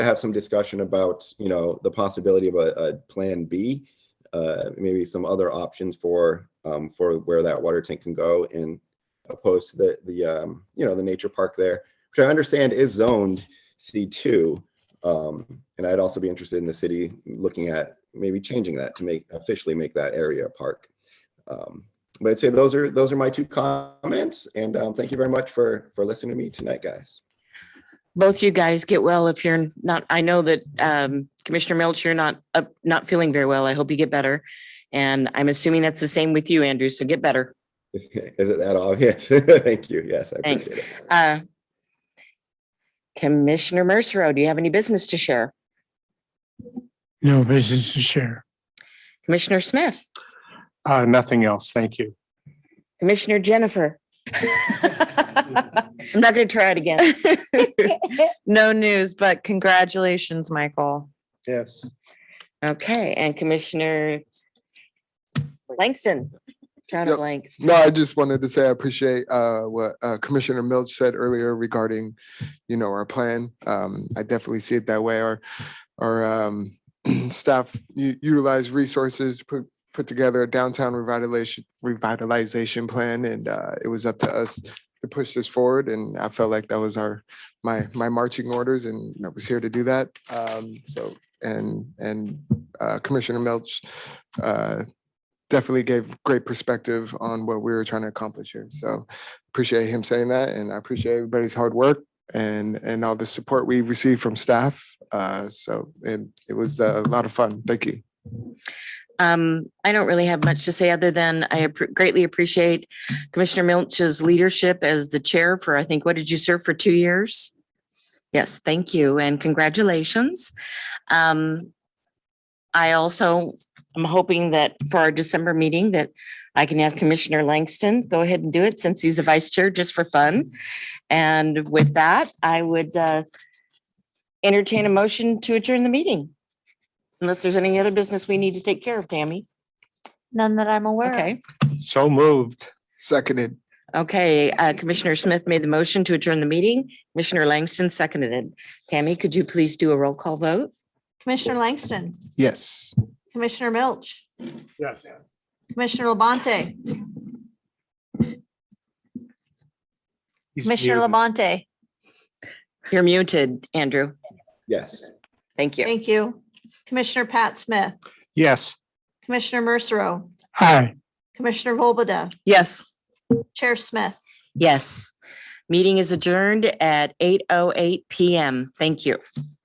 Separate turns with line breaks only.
have some discussion about, you know, the possibility of a, a plan B. Uh, maybe some other options for, um, for where that water tank can go in opposed to the, the, um, you know, the nature park there, which I understand is zoned C two. Um, and I'd also be interested in the city looking at maybe changing that to make, officially make that area a park. Um, But I'd say those are, those are my two comments and, um, thank you very much for, for listening to me tonight, guys.
both you guys get well if you're not i know that um, commissioner milch you're not up not feeling very well i hope you get better and i'm assuming that's the same with you andrew so get better
Is it that obvious? Thank you. Yes, I
Thanks.
appreciate it.
uh, commissioner mercero do you have any business to share
No business to share.
commissioner smith
Uh, nothing else. Thank you.
commissioner jennifer i'm not going to try it again
No news, but congratulations, Michael.
Yes.
okay and commissioner langston trying to
Yep.
blank
No, I just wanted to say I appreciate uh, what uh, Commissioner Milch said earlier regarding, you know, our plan. Um, I definitely see it that way. Our, our um, staff u- utilize resources, put, put together a downtown revitalization, revitalization plan, and uh, it was up to us to push this forward. And I felt like that was our, my, my marching orders, and I was here to do that. Um, So, and, and uh, Commissioner Milch uh, definitely gave great perspective on what we were trying to accomplish here. So appreciate him saying that and I appreciate everybody's hard work and, and all the support we received from staff. Uh, so, and it was uh, a lot of fun. Thank you.
Um, I don't really have much to say other than I appre- greatly appreciate Commissioner Milch's leadership as the chair for, I think, what did you serve for two years? Yes, thank you and congratulations. Um, I also am hoping that for our December meeting that I can have Commissioner Langston go ahead and do it since he's the vice chair, just for fun. And with that, I would uh, entertain a motion to adjourn the meeting. Unless there's any other business we need to take care of, Tammy.
None that I'm aware of.
Okay,
So moved.
Seconded.
okay. uh, Commissioner Smith made the motion to adjourn the meeting. Commissioner Langston seconded it. Tammy, could you please do a roll call vote?
Commissioner Langston,
Yes.
Commissioner Milch,
Yes.
Commissioner Labonte,
He's
Commissioner
muted.
Labonte.
You're muted, Andrew.
Yes.
Thank you.
Thank you. Commissioner Pat Smith,
Yes.
Commissioner Mercero,
Hi.
Commissioner Volbada,
Yes.
Chair Smith.
oh Yes. Meeting is adjourned at 8:08 PM. Thank you.